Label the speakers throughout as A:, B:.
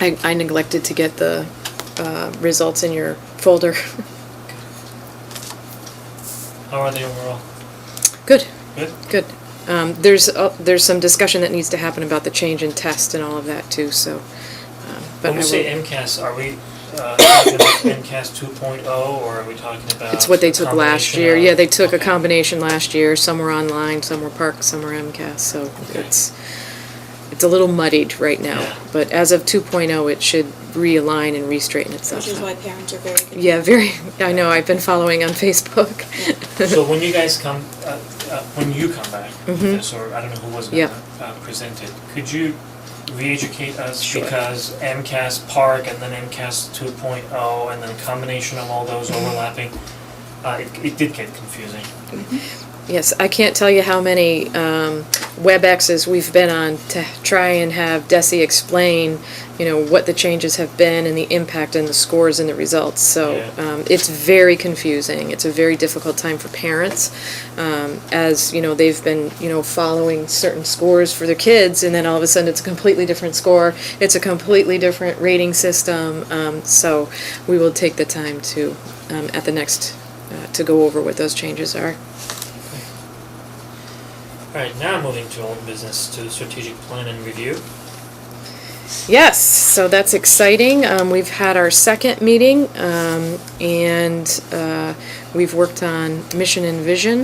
A: I, I neglected to get the uh, results in your folder.
B: How are they overall?
A: Good,
B: Good?
A: good. Um, There's, uh, there's some discussion that needs to happen about the change in test and all of that too, so. um, but
B: When we
A: I
B: say
A: will-
B: MCAS, are we uh, talking about MCAS 2.0 oh, or are we talking about?
A: It's what they took last
B: uh, combination
A: year.
B: of-
A: Yeah, they took a
B: okay.
A: combination last year. Some were online, some were Park, some were MCAS, so
B: Okay.
A: it's, it's a little muddied right now.
B: Yeah.
A: But as of 2.0, it should realign and re-straighten itself
C: Which is
A: out.
C: why parents are very confused.
A: Yeah, very, I know, I've been following on Facebook.
B: So when you guys come, uh, uh, when you come back with this, or I don't know who was
A: Mm-hmm. Yeah.
B: gonna uh, present it, could you re-educate us?
A: Sure.
B: Because MCAS Park and then MCAS 2.0 and then combination of all those
A: Mm-hmm.
B: overlapping, uh, it it did get confusing.
A: Yes, I can't tell you how many um, WebExes we've been on to try and have Desi explain, you know, what the changes have been and the impact and the scores and the results. So
B: Yeah.
A: um, it's very confusing. It's a very difficult time for parents, um, as you know they've been you know following certain scores for their kids, and then all of a sudden it's a completely different score. It's a completely different rating system. Um, so we will take the time to um, at the next uh, to go over what those changes are.
B: All right, now moving to old business, to strategic plan and review.
A: Yes, so that's exciting. Um, we've had our second meeting, um, and uh, we've worked on mission and vision.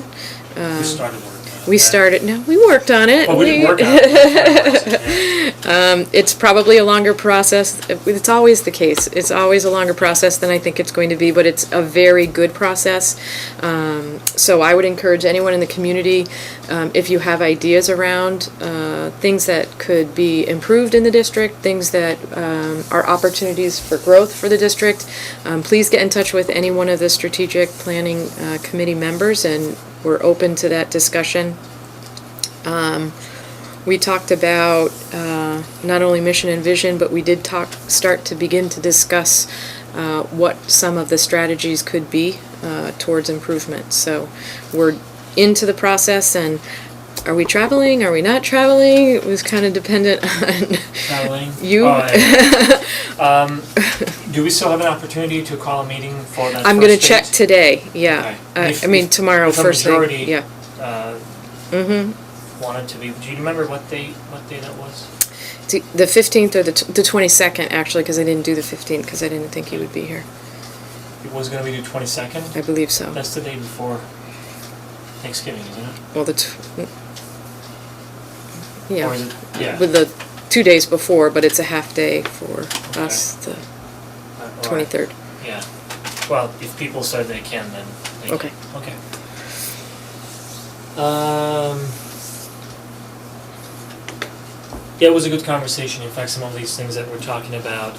B: We started working on
A: Um, We
B: that.
A: started. No, we worked on it.
B: Oh, we didn't work on it. Yeah.
A: It's probably a longer process. It's always the case. It's always a longer process than I think it's going to be, but it's a very good process. Um, so I would encourage anyone in the community, um, if you have ideas around uh, things that could be improved in the district, things that um, are opportunities for growth for the district, um, please get in touch with any one of the strategic planning uh, committee members, and we're open to that discussion. We talked about uh, not only mission and vision, but we did talk, start to begin to discuss uh, what some of the strategies could be uh, towards improvement. So we're into the process and are we traveling, are we not traveling? It was kind of dependent on,
B: Traveling.
A: You-
B: Oh, yeah. Um, do we still have an opportunity to call a meeting for that
A: I'm going to
B: first
A: check
B: date?
A: today, yeah.
B: Okay.
A: Uh,
B: If-
A: I mean,
B: if-
A: tomorrow,
B: if a
A: first thing,
B: majority-
A: yeah.
B: Uh,
A: Mm-hmm.
B: Wanted to be, do you remember what day, what day that was?
A: T- The 15th or the t- the 22nd, actually, because I didn't do the 15th, because I didn't think he would be here.
B: It was gonna be the twenty-second,
A: I believe so.
B: that's the day before Thanksgiving, isn't it?
A: Well, the, tw-
B: Or is
A: yeah,
B: it, yeah.
A: with the two days before, but it's a half day for us, the
B: uh, or-
A: 23rd.
B: Yeah, well, if people said they can, then they can.
A: Okay.
B: Okay. Um. Yeah, it was a good conversation, in fact, some of these things that we're talking about,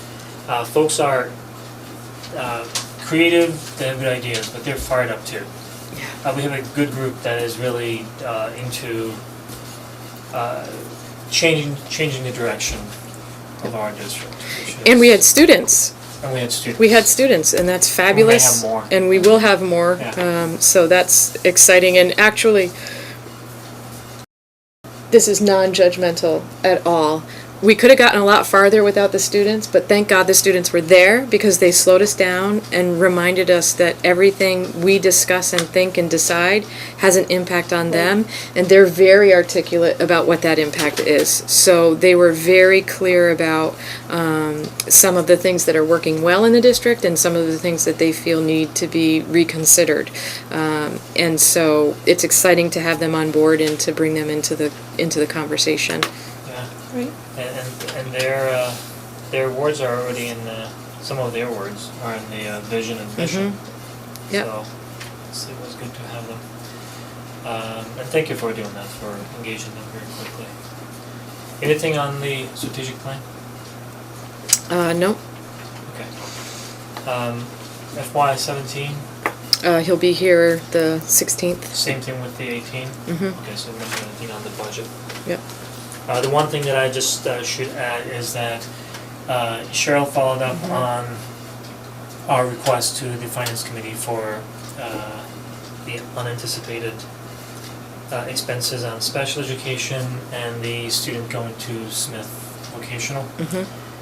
B: uh, folks are, uh, creative, they have good ideas, but they're fired up too.
A: Yeah.
B: Uh, we have a good group that is really, uh, into, uh, changing, changing the direction of our district, which is.
A: And we had students,
B: And we had students.
A: we had students, and that's
B: have
A: fabulous.
B: more.
A: And we will have more,
B: Yeah.
A: um, so that's exciting, and actually, this is non-judgmental at all. We could have gotten a lot farther without the students, but thank God the students were there because they slowed us down and reminded us that everything we discuss and think and decide has an impact on them, and they're very articulate about what that impact is. So they were very clear about um, some of the things that are working well in the district and some of the things that they feel need to be reconsidered. Um, and so it's exciting to have them on board and to bring them into the into the conversation.
B: Yeah.
C: Right?
B: And, and, and their, uh, their words are already in the, some of their words are in the uh, vision and mission.
A: Yep.
B: So, it's- it was good to have them. Um, and thank you for doing that, for engaging them very quickly. Anything on the strategic plan?
A: Uh, no,
B: Okay. Um, FY seventeen,
A: uh, he'll be here the 16th.
B: same thing with the 18
A: Mhm.
B: Okay, so we're not doing anything on the budget.
A: Yep.
B: Uh, the one thing that I just uh, should add is that uh, Cheryl followed up on our request to the finance committee for uh, the unanticipated uh, expenses on special education and the student going to Smith vocational.
A: Mm-hmm.